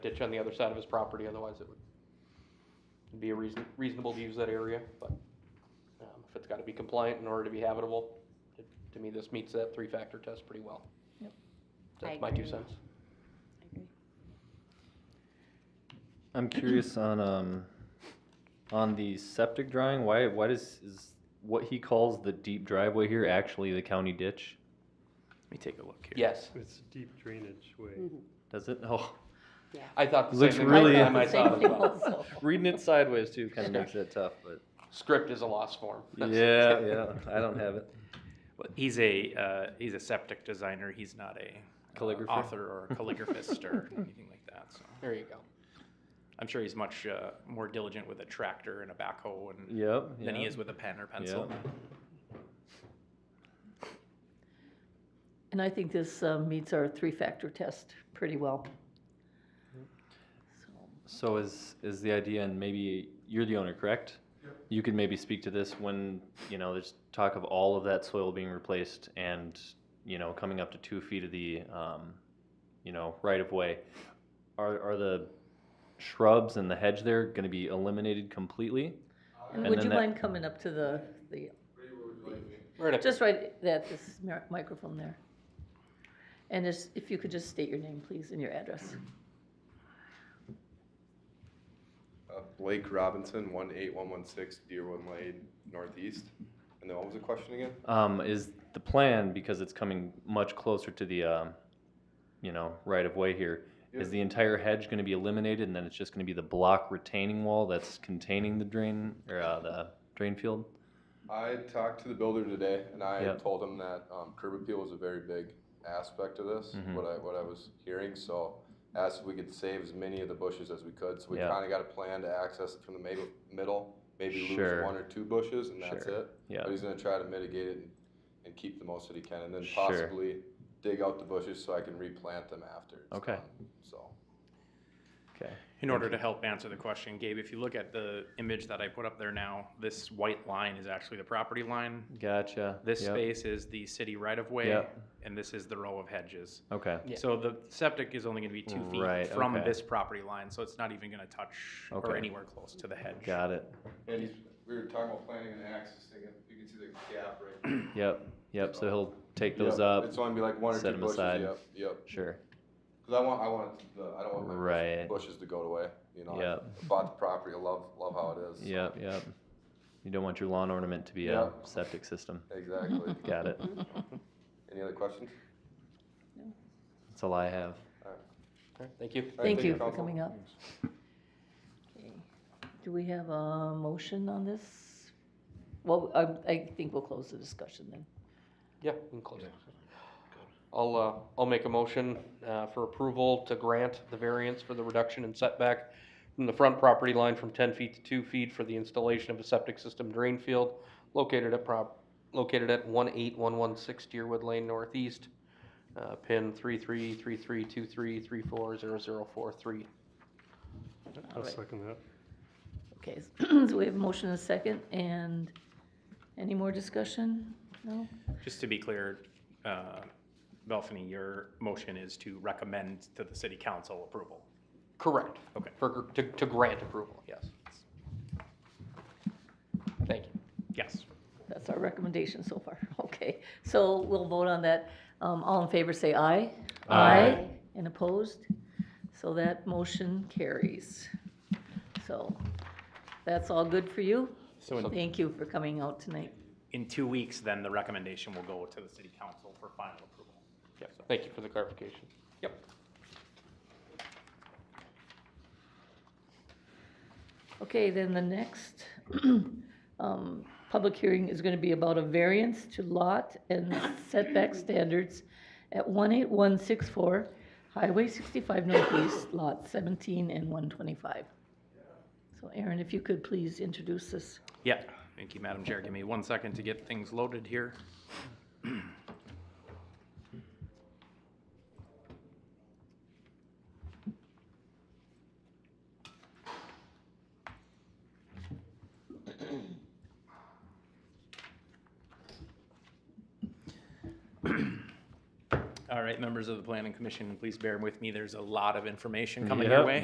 ditch on the other side of his property, otherwise it would be a reason, reasonable to use that area, but, um, if it's gotta be compliant in order to be habitable, it- to me, this meets that three-factor test pretty well. Yep. That's I my two agree. cents. I'm curious on, um, on the septic drawing, why, why does, is what he calls the deep driveway here actually the county ditch? Let me take a look here. Yes, It's a deep drainage way. Does it? Oh, I thought the same Looks thing really- last time I I saw it as well. reading it sideways too kind of makes it tough, but. Script is a lost form. That's- Yeah, yeah, I don't have it. Well, he's a, uh, he's a septic designer. He's not a uh, Calligrapher? author or a calligraphist or anything like that. So There you go. I'm sure he's much uh, more diligent with a tractor and a backhoe and Yep. than he yeah. is with a pen or pencil. And I think this uh, meets our three-factor test pretty well. So, So is, is the idea, and maybe you're the owner, correct? You could maybe speak to this when, you know, there's talk of all of that soil being replaced and, you know, coming up to two feet of the, um, you know, right of way. Are, are the shrubs and the hedge there gonna be eliminated completely? And And would then you that- mind coming up to the, the, Right up- just right at this mi- microphone there? And just, if you could just state your name, please, and your address. Uh, Blake Robinson, one eight one one six Deerwood Lane Northeast. And then what was the question again? Um, is the plan, because it's coming much closer to the, um, you know, right of way here, is Yeah. the entire hedge gonna be eliminated and then it's just gonna be the block retaining wall that's containing the drain, or, uh, the drain field? I talked to the builder today, and I Yep. told him that um, curb appeal was a very big aspect of this. Mhm. What I what I was hearing, so asked if we could save as many of the bushes as we could. So we Yeah. kind of got a plan to access it from the maybe, middle, maybe Sure. lose one or two bushes, and that's Sure. it. Yeah, But he's going to try to mitigate it and, and keep the most that he can, and then Sure. possibly dig out the bushes so I can replant them after. It's Okay. done. So. okay. In order to help answer the question, Gabe, if you look at the image that I put up there now, this white line is actually the property line. Gotcha. This Yep. space is the city right of way, Yep. and this is the row of hedges. Okay, Yeah. So the septic is only gonna be two Right, feet from okay. this property line, so it's not even gonna touch or Okay. anywhere close to the hedge. got it. And he's, we were talking about planning and accessing it, you can see the gap right. Yep, yep, so he'll take Yep, those up, It's only be like one or set two 'em bushes, aside. yep, yep, sure. cause I want, I want it to- the, I don't want my Right. bushes to go away, you know? I Yep. Bought the property, I love, love how it is. Yep, yep. You don't want your lawn ornament to be a Yep. septic system. Exactly. Got it. Any other questions? That's all I have. All right, Thank you. All right, Thank you for Council. coming up. Okay. Do we have a motion on this? Well, I, I think we'll close the discussion then. Yeah, we can close it. I'll, uh, I'll make a motion, uh, for approval to grant the variance for the reduction in setback from the front property line from ten feet to two feet for the installation of a septic system drain field located at prop, located at one eight one one six Deerwood Lane Northeast, uh, pin three three three three two three three four zero zero four three. I'll Alright. second that. Okay, so we have a motion and a second, and any more discussion? No? Just to be clear, uh, Belfany, your motion is to recommend to the city council approval. Correct. Okay. For, gr- to, to grant approval, yes. Thank you. Yes. That's our recommendation so far. Okay, so we'll vote on that. Um, all in favor, say aye. Aye. And opposed? So that motion carries. So that's all good for you. So in, Thank you for coming out tonight. in two weeks, then the recommendation will go to the city council for final approval. Yeah, thank you for the clarification. Yep. Okay, then the next, um, public hearing is gonna be about a variance to lot and setback standards at one eight one six four Highway sixty-five Northeast, lot seventeen and one twenty-five. So Aaron, if you could please introduce this. Yeah, thank you, Madam Chair. Give me one second to get things loaded here. All All right, members of the planning commission, please bear with me. There's a lot of information coming your Yep. way.